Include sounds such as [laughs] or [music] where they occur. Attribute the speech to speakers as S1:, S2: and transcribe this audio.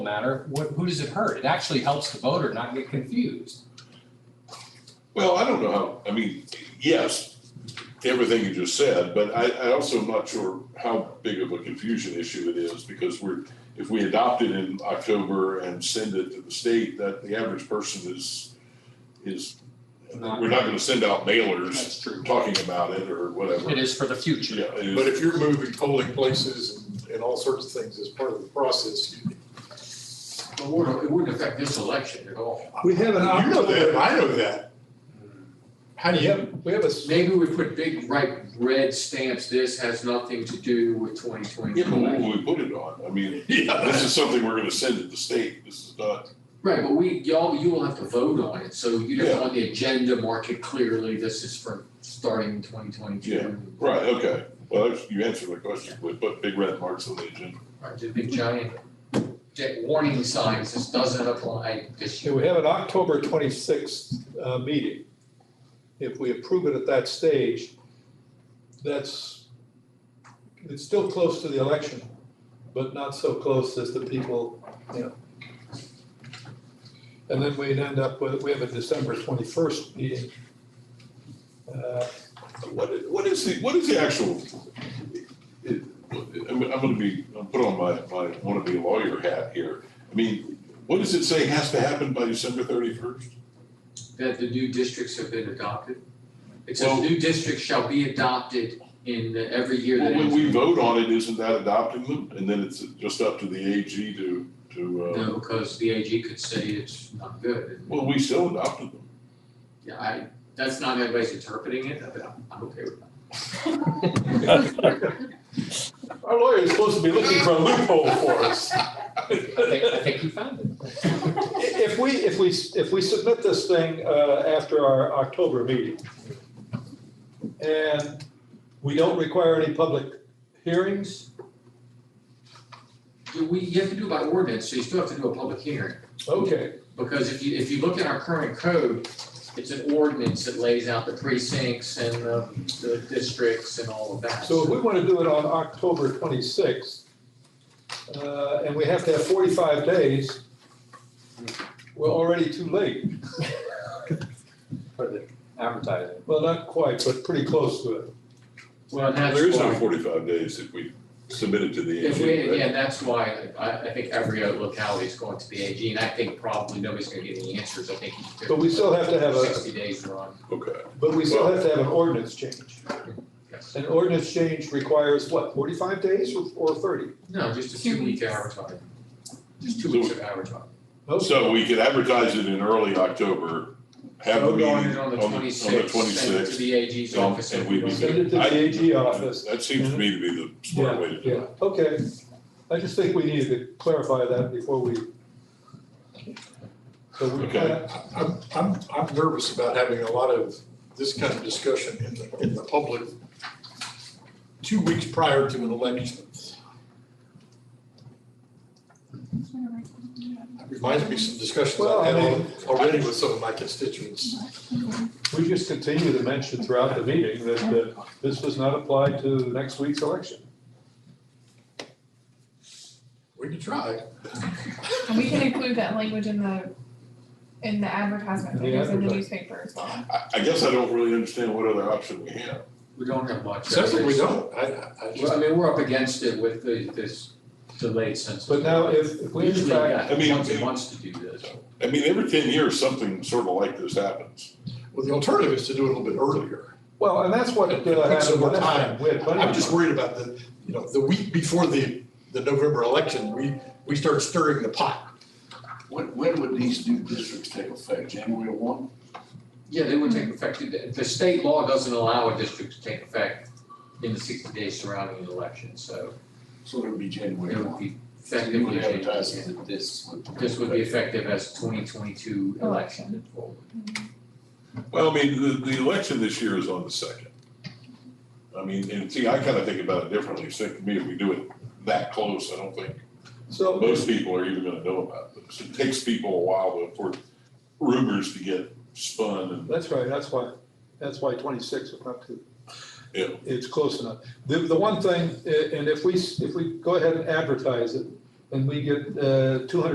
S1: matter, what, who does it hurt? It actually helps the voter not get confused.
S2: Well, I don't know how, I mean, yes, everything you just said, but I, I also am not sure how big of a confusion issue it is because we're, if we adopt it in October and send it to the state, that the average person is, is,
S1: Not-
S2: we're not gonna send out mailers
S1: That's true.
S2: talking about it or whatever.
S1: It is for the future.
S2: Yeah, it is-
S3: But if you're moving polling places and, and all sorts of things as part of the process, you-
S4: It wouldn't, it wouldn't affect this election at all.
S5: We have an
S3: you know that,
S5: October,
S3: I know that. How do you, we have a, s-
S4: Maybe we put big bright red stamps, this has nothing to do with twenty twenty
S2: Yeah, but what will
S4: election.
S2: we put it on? I mean,
S3: [laughs] yeah,
S2: this is something we're gonna send to the state. This is not,
S4: Right, but we, y'all, you will have to vote on it, so you
S2: Yeah.
S4: have on the agenda, mark it clearly, this is for starting in twenty twenty
S2: Yeah.
S4: two.
S2: right, okay. Well, you answered my question. We put big red marks on the agenda.
S4: Right, the big giant jet warning signs, this doesn't apply this
S5: yeah,
S4: year.
S5: we have an October twenty-sixth, uh, meeting. If we approve it at that stage, that's, it's still close to the election, but not so close as the people, you know. And then we'd end up with, we have a December twenty-first meeting. Uh,
S2: What, i- what is the, what is the actual? it- I'm, I'm gonna be, I'm put on my, my wanna be lawyer hat here. I mean, what does it say has to happen by December thirty-first?
S4: That the new districts have been adopted. It says
S2: Well-
S4: new districts shall be adopted in the- every year that.
S2: When
S4: ends
S2: we
S4: with-
S2: vote on it, isn't that adopting them? And then it's just up to the AG to, to, uh,
S4: No, because the AG could say it's not good, and
S2: well, we still adopted them.
S4: Yeah, I, that's not everybody's interpreting it, but I'm I'm okay with that.
S3: our lawyer is supposed to be looking for a loophole for us.
S1: I think, I think you found it. [laughs]
S5: i- If we, if we, if we submit this thing, uh, after our October meeting, and we don't require any public hearings,
S4: Do we, you have to do it by ordinance, so you still have to do a public hearing,
S5: okay.
S4: because if you, if you look at our current code, it's an ordinance that lays out the precincts and the, the districts and all of that.
S5: So if we want to do it on October 26th, uh, and we have to have 45 days, we're already too late.
S1: For the advertising.
S5: Well, not quite, but pretty close to it.
S4: Well, and that's
S2: There is no
S4: why-
S2: forty-five days if we submit it to the
S4: If we,
S2: AG, right?
S4: yeah, that's why I, I think every other locality is going to the AG, and I think probably nobody's gonna get any answers, I think. you-
S5: But we still have to have a-
S4: Sixty days are on,
S2: Okay,
S5: But we still have to have an ordinance change.
S4: yes.
S5: An ordinance change requires what, 45 days or- or 30?
S4: No, just a two week advertising, just two weeks of advertising.
S2: so we could advertise it in early October, have the
S4: Vote
S2: meeting
S4: on it on the twenty-sixth, send it to
S2: 26th,
S4: the AG's
S2: um,
S4: office.
S2: and we'd be
S5: Send it to the AG office.
S2: uh, That seems to me to be the smart way to do
S5: Yeah,
S2: it.
S5: okay. I just think we needed to clarify that before we. So we
S2: Okay.
S5: kinda-
S3: I'm, I'm, I'm nervous about having a lot of this kind of discussion in the, in the public two weeks prior to an election. It Reminds me of some discussions
S5: Well,
S3: I've
S5: I
S3: had
S5: mean-
S3: al- already with some of my constituents.
S5: We just continue to mention throughout the meeting that uh, this does not apply to next week's election.
S3: We can try.
S6: And we can include that language in the, in the advertisement,
S5: In the
S6: that goes in the
S5: advertising.
S6: newspaper as well.
S2: I, I guess I don't really understand what other option we have.
S4: We don't have much.
S3: Except we don't, I, I- I
S4: Well,
S3: just,
S4: I mean, we're up against it with the, this delayed census.
S5: But now if, if we in
S4: Usually,
S5: fact,
S2: I mean,
S4: yeah, once it
S2: we-
S4: wants to do this.
S2: I mean, every ten years, something sort of like this happens.
S3: well, the alternative is to do it a little bit earlier.
S5: well, and that's what uh,
S3: It takes
S5: happened
S3: more
S5: last
S3: time.
S5: time. We had plenty
S3: I'm
S5: of
S3: just
S5: time.
S3: worried about the, you know, the week before the, the November election, we, we start stirring the pot.
S7: When, when would these new districts take effect? January one?
S4: Yeah, they would take effect, the, the state law doesn't allow a district to take effect in the sixty days surrounding the election, so
S7: So it would be
S4: it
S7: January
S4: would
S7: one.
S4: be
S7: So you
S4: effectively.
S7: would
S4: changed.
S7: advertise it that this would.
S4: This would be effective as twenty twenty-two election and forward.
S2: Well, I mean, the, the election this year is on the second. I mean, and see, I kind of think about it differently. So to me, if we do it that close, I don't think
S5: So,
S2: most people are even gonna know about this. It takes people a while for rumors to get spun and
S5: that's right, that's why, that's why twenty-six was not too.
S2: Yeah.
S5: It's close enough. The, the eh, one thing, uh, and if we, s- if we go ahead and advertise it, and we get two hundred